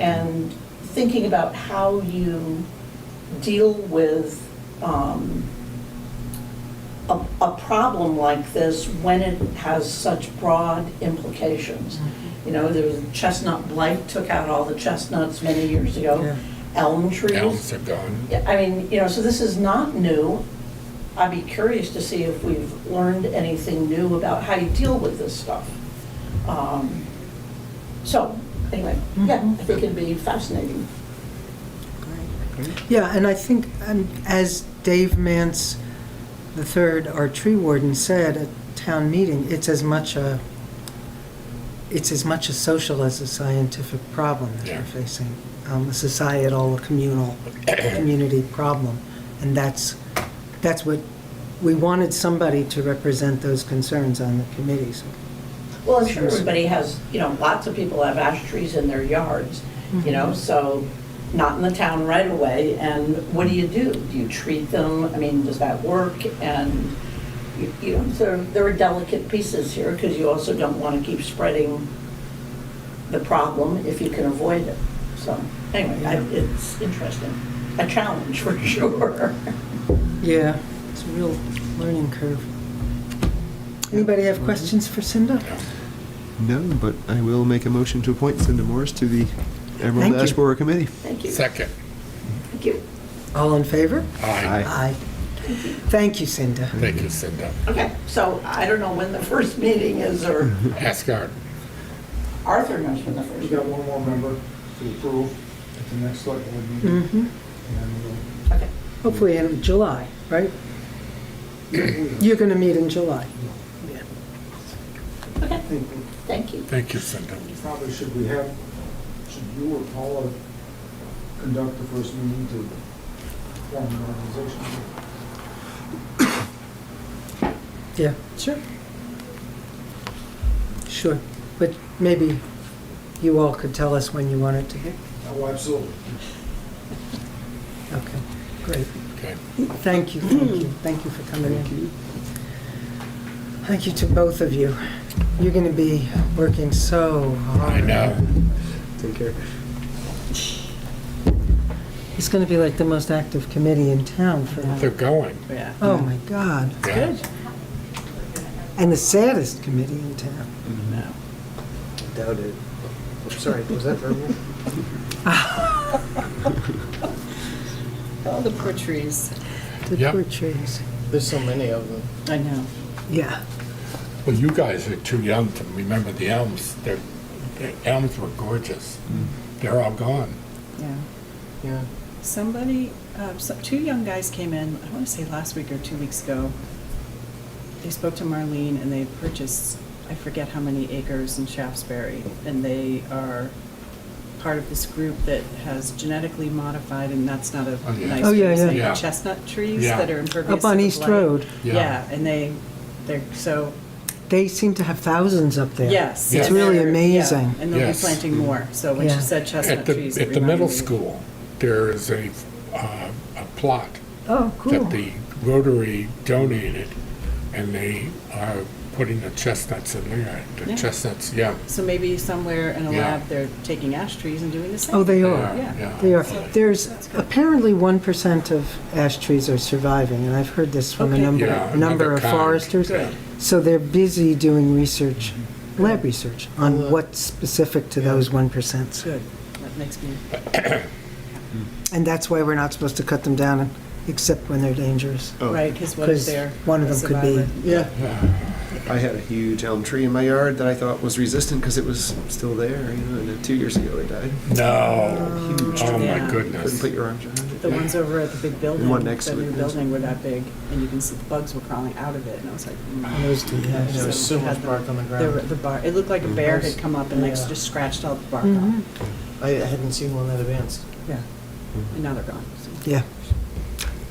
and thinking about how you deal with um, a, a problem like this when it has such broad implications. You know, there was chestnut blight took out all the chestnuts many years ago, elm trees. Elms are gone. Yeah, I mean, you know, so this is not new. I'd be curious to see if we've learned anything new about how you deal with this stuff. Um, So, anyway, yeah, I think it'd be fascinating. Yeah, and I think, um, as Dave Mance III, our tree warden, said at town meeting, it's as much a, it's as much a social as a scientific problem that Yeah. we're facing, um, a societal, a communal, community problem. And that's, that's what, we wanted somebody to represent those concerns on the committee, so. Well, I'm sure everybody has, you know, lots of people have ash trees in their yards, you know, so not in the town right away. And what do you do? Do you treat them? I mean, does that work? And, you- you know, there, there are delicate pieces here because you also don't want to keep spreading the problem if you can avoid it. So anyway, I- it's interesting. A challenge for sure. Yeah, it's a real learning curve. Anybody have questions for Cinda? No, but I will make a motion to appoint Cindy Morris to the Thank Emerald you. Ash Borer Committee. Thank you. Second, Thank you. All in favor? aye. Aye. Thank you, Cinda. Thank you, Cinda. Okay, so I don't know when the first meeting is or Asgard, Arthur knows when the first We've meeting got one more member to approve at the next select board meeting. Mhm. And we'll Okay. Hopefully in July, right? You're going to meet in July. Okay, I think we thank you. thank you, Cinda. probably should we have, should you or Paula conduct the first meeting to form an organization? Yeah, sure. Sure, but maybe you all could tell us when you want it to be. Oh, absolutely. Okay, great. Okay. Thank you, thank you, Mm. thank you for coming in. Thank you to both of you. You're going to be working so hard. I know. Take care. It's going to be like the most active committee in town for They're going. Oh, my God. Yeah. And the saddest committee in town. Doubt it. I'm Sorry, was that verbal? All the poor trees. The Yep. poor trees. There's so many of them. I know. Yeah, Well, you guys are too young to remember the elms. They're, the elms were gorgeous. They're all gone. Yeah. Yeah. Somebody, uh, so- two young guys came in, I want to say last week or two weeks ago. They spoke to Marlene and they purchased, I forget how many acres in Shaftesbury. And they are part of this group that has genetically modified, and that's not a Oh, yeah. nice Oh, yeah, way to say yeah. it, Yeah. Chestnut trees Yeah. that are impervious Up on to the East blight. Road. Yeah. Yeah, and they, they're, so they seem to have thousands up there. Yes. It's and really they're- yeah, amazing. And they'll be Yes. planting more, so when Yeah. she said chestnut At the, trees. it at the reminded middle me. school, there is a, uh, a plot Oh, cool. that the Rotary donated, and they are putting the chestnuts in there. The Yeah. chestnuts, yeah. So maybe somewhere in a Yeah. lab, they're taking ash trees and doing the same. Oh, they are, Yeah, Yeah. they are. yeah. There's, apparently 1% of ash trees are surviving, and I've heard this from a Okay. number, Yeah, number another of kind. foresters. Good. So they're busy doing research, Mm-hmm. lab research, on what's specific to those 1%. Good, that makes me, And that's why we're not supposed to cut them down, except when they're dangerous. Oh. right, because what if Because they're. one of a them could be, survivor? Yeah. I had a huge elm tree in my yard that I thought was resistant because it was still there, you know, and then two years ago it died. No. Huge Oh, tree. my Yeah. Couldn't goodness. put your arms around it. The ones over at the big building, one next the to it, new yes. building were that big, and you can see the bugs were crawling out of it, and I was like. mm. those two, yeah. There was so it had much the- bark on the there were- ground. The bar, it looked like a bear had come up and like Yeah. just scratched all the bark Mhm. off. I hadn't seen one that advanced. Yeah. And now they're gone. so. Yeah.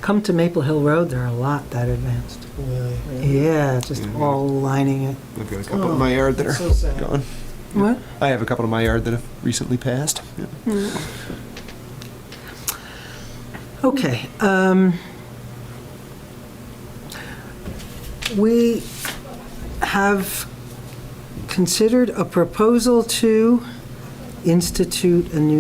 Come to Maple Hill Road, there are a lot that advanced. Really. Yeah, just Mhm. all lining it. I've got a couple in my yard that so are sad. gone. What? I have a couple in my yard that have recently passed. Yeah. Okay. um, We have considered a proposal to institute a new